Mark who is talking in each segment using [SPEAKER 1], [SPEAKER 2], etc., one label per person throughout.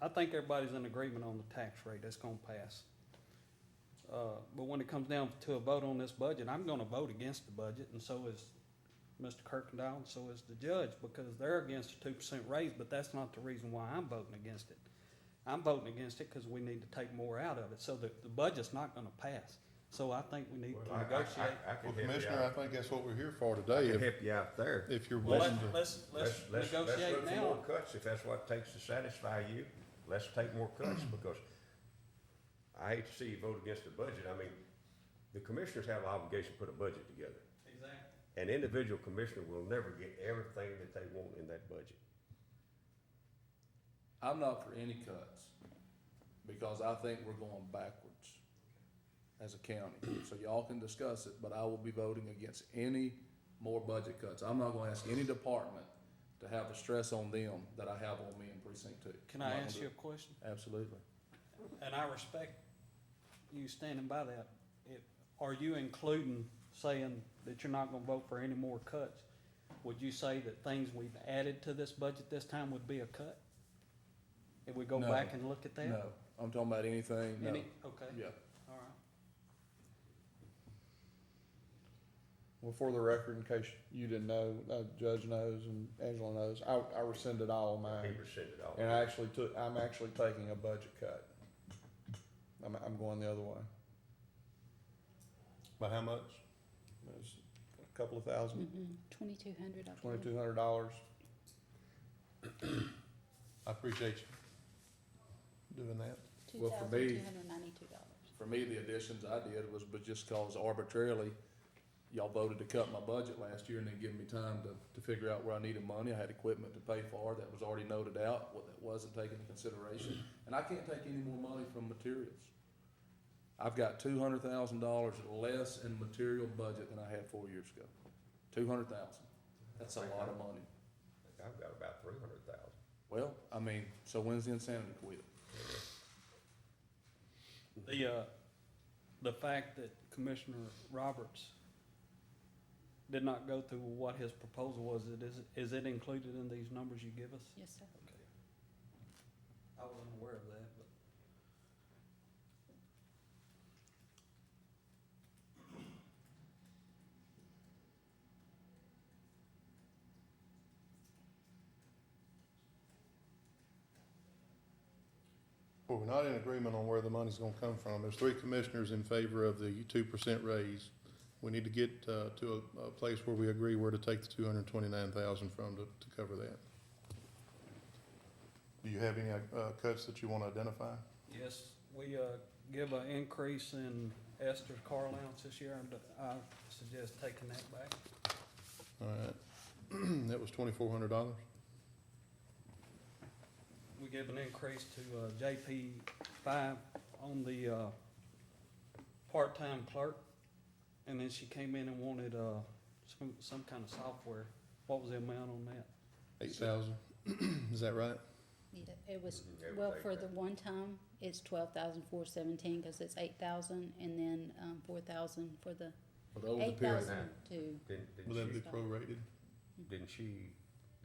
[SPEAKER 1] I think everybody's in agreement on the tax rate that's gonna pass. Uh, but when it comes down to a vote on this budget, I'm gonna vote against the budget, and so is Mr. Kirkendall, and so is the judge, because they're against a two percent raise, but that's not the reason why I'm voting against it. I'm voting against it because we need to take more out of it, so the, the budget's not gonna pass. So I think we need to
[SPEAKER 2] I- I-
[SPEAKER 1] negotiate.
[SPEAKER 2] I- I can
[SPEAKER 3] Well,
[SPEAKER 2] help you
[SPEAKER 3] Commissioner, I
[SPEAKER 2] out.
[SPEAKER 3] think that's what we're here for
[SPEAKER 2] I
[SPEAKER 3] today,
[SPEAKER 2] can
[SPEAKER 3] if,
[SPEAKER 2] help you out there.
[SPEAKER 3] if you're
[SPEAKER 1] Well,
[SPEAKER 3] willing
[SPEAKER 1] let-
[SPEAKER 3] to.
[SPEAKER 1] let's, let's
[SPEAKER 2] let's look
[SPEAKER 1] negotiate
[SPEAKER 2] for
[SPEAKER 1] now.
[SPEAKER 2] More cuts, if that's what it takes to satisfy you, let's take more cuts, because I hate to see you vote against the budget, I mean, the commissioners have an obligation to put a budget together.
[SPEAKER 1] Exactly.
[SPEAKER 2] An individual commissioner will never get everything that they want in that budget.
[SPEAKER 4] I'm not for any cuts, because I think we're going backwards as a county. So y'all can discuss it, but I will be voting against any more budget cuts. I'm not gonna ask any department to have the stress on them that I have on me in precinct two.
[SPEAKER 1] Can
[SPEAKER 4] I'm
[SPEAKER 1] I
[SPEAKER 4] not
[SPEAKER 1] ask
[SPEAKER 4] gonna
[SPEAKER 1] you a
[SPEAKER 4] do
[SPEAKER 1] question?
[SPEAKER 4] it. Absolutely.
[SPEAKER 1] And I respect you standing by that. It- Are you including saying that you're not gonna vote for any more cuts? Would you say that things we've added to this budget this time would be a cut? If we go
[SPEAKER 4] No.
[SPEAKER 1] back and look at that?
[SPEAKER 4] No, I'm talking about anything, no,
[SPEAKER 1] Any- Okay,
[SPEAKER 4] yeah.
[SPEAKER 1] all right.
[SPEAKER 5] Well, for the record, in case you didn't know, uh, Judge knows and Angela knows, I, I rescinded all of
[SPEAKER 2] He
[SPEAKER 5] mine.
[SPEAKER 2] rescinded all.
[SPEAKER 5] And I actually took, I'm actually taking a budget cut. I'm, I'm going the other way.
[SPEAKER 2] By how much?
[SPEAKER 5] It's a couple of thousand,
[SPEAKER 6] Twenty-two hundred, I believe.
[SPEAKER 5] twenty-two hundred dollars.
[SPEAKER 3] I appreciate you doing that.
[SPEAKER 4] Well, for me-
[SPEAKER 6] $2,292.
[SPEAKER 4] For me, the additions I did was, but just cause arbitrarily, y'all voted to cut my budget last year and then give me time to, to figure out where I needed money. I had equipment to pay for that was already noted out, what that wasn't taken into consideration. And I can't take any more money from materials. I've got two hundred thousand dollars less in material budget than I had four years ago. Two hundred thousand. That's a lot of money.
[SPEAKER 2] I've got about three hundred thousand.
[SPEAKER 4] Well, I mean, so when's the insanity quit?
[SPEAKER 1] The, uh, the fact that Commissioner Roberts did not go through what his proposal was, it is, is it included in these numbers you give us?
[SPEAKER 6] Yes, sir.
[SPEAKER 1] I wasn't aware of that, but.
[SPEAKER 3] Well, we're not in agreement on where the money's gonna come from. There's three commissioners in favor of the two percent raise. We need to get, uh, to a, a place where we agree where to take the two hundred and twenty-nine thousand from to, to cover that. Do you have any, uh, cuts that you wanna identify?
[SPEAKER 1] Yes, we, uh, give an increase in Esther's car allowance this year, and I suggest taking that back.
[SPEAKER 3] All right, that was twenty-four hundred dollars.
[SPEAKER 1] We give an increase to, uh, JP five on the, uh, part-time clerk, and then she came in and wanted, uh, some, some kind of software. What was the amount on that?
[SPEAKER 3] Eight thousand, is that right?
[SPEAKER 6] Need it. It was,
[SPEAKER 2] Mhm, it
[SPEAKER 6] well,
[SPEAKER 2] was
[SPEAKER 6] for
[SPEAKER 2] eight
[SPEAKER 6] the one time, it's twelve thousand four seventeen, cause it's eight thousand, and then, um, four thousand for the,
[SPEAKER 4] But over the
[SPEAKER 6] eight
[SPEAKER 4] period,
[SPEAKER 6] thousand to,
[SPEAKER 2] Didn't,
[SPEAKER 3] Will that
[SPEAKER 2] didn't
[SPEAKER 3] be
[SPEAKER 2] she,
[SPEAKER 3] prorated?
[SPEAKER 2] didn't she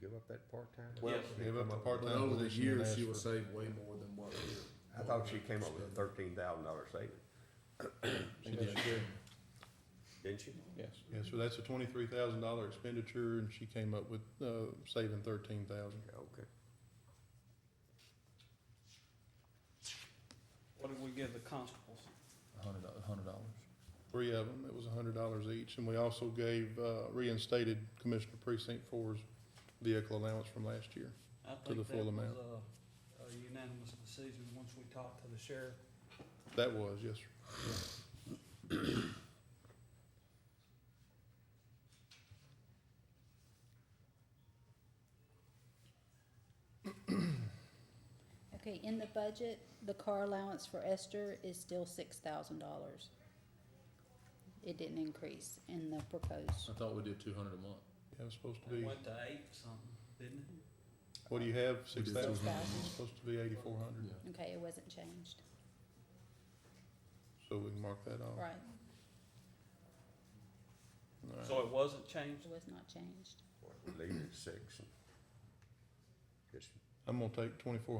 [SPEAKER 2] give up that part-time?
[SPEAKER 4] Well,
[SPEAKER 1] Yes.
[SPEAKER 3] Give up the
[SPEAKER 4] but
[SPEAKER 3] part-time
[SPEAKER 4] over the
[SPEAKER 3] position and
[SPEAKER 4] years,
[SPEAKER 3] ask
[SPEAKER 4] she
[SPEAKER 3] for-
[SPEAKER 4] will save way more than what we're.
[SPEAKER 2] I thought she came up with a thirteen thousand dollar savings,
[SPEAKER 4] She did.
[SPEAKER 2] didn't she?
[SPEAKER 5] Yes.
[SPEAKER 3] Yeah, so that's a twenty-three thousand dollar expenditure, and she came up with, uh, saving thirteen thousand.
[SPEAKER 2] Yeah, Okay.
[SPEAKER 1] What did we give the constables?
[SPEAKER 5] A hundred, a hundred dollars.
[SPEAKER 3] Three of them, it was a hundred dollars each, and we also gave, uh, reinstated Commissioner Precinct Four's vehicle allowance from last year.
[SPEAKER 1] I
[SPEAKER 3] the
[SPEAKER 1] think that
[SPEAKER 3] full
[SPEAKER 1] was
[SPEAKER 3] amount.
[SPEAKER 1] a, a unanimous decision once we talked to the sheriff.
[SPEAKER 3] That was, yes, sir.
[SPEAKER 6] okay, in the budget, the car allowance for Esther is still six thousand dollars. It didn't increase in the proposed.
[SPEAKER 4] I thought we did two hundred a month.
[SPEAKER 3] Yeah, it's supposed to
[SPEAKER 1] It
[SPEAKER 3] be,
[SPEAKER 1] went to eight something, didn't it?
[SPEAKER 3] what do you have, six thousand?
[SPEAKER 6] Six thousand.
[SPEAKER 3] Supposed to be eighty-four hundred,
[SPEAKER 4] Yeah.
[SPEAKER 6] Okay, it wasn't changed,
[SPEAKER 3] so we can mark that off.
[SPEAKER 6] right,
[SPEAKER 3] All right.
[SPEAKER 1] So it wasn't changed?
[SPEAKER 6] it was not changed.
[SPEAKER 2] Leave it at six. and Just
[SPEAKER 3] I'm gonna take twenty-four